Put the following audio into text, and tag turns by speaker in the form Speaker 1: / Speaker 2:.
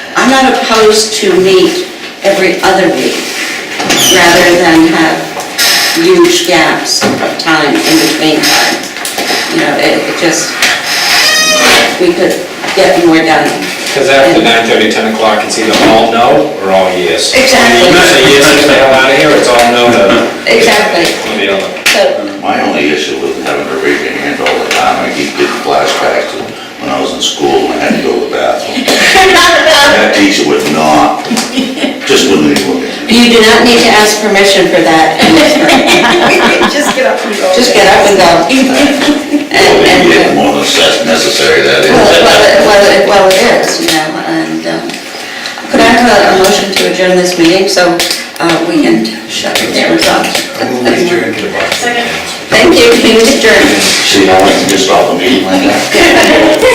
Speaker 1: not opposed to meet every other week, rather than have huge gaps of time in between time. You know, it it just, we could get more done.
Speaker 2: Because after 9:30, 10 o'clock, it's either all no or all yes.
Speaker 1: Exactly.
Speaker 2: You say yes, you stay out of here, it's all no to...
Speaker 1: Exactly.
Speaker 2: One or the other.
Speaker 1: So,
Speaker 3: My only issue with having to raise your hand all the time, I keep getting flashbacks to when I was in school and I had to go to the bathroom. That teacher would not, just wouldn't even look at me.
Speaker 1: you do not need to ask permission for that.
Speaker 4: Just get up and go.
Speaker 1: Just get up and go.
Speaker 3: Well,
Speaker 1: And-
Speaker 3: then you get
Speaker 1: and-
Speaker 3: more than that's necessary, that is.
Speaker 1: Well, it- well, it- well, it is, you know, and um, could I have a- a motion to adjourn this meeting so uh, we can shut the cameras off? Thank you, meeting adjourned.
Speaker 3: See, I went and just stopped the meeting like that.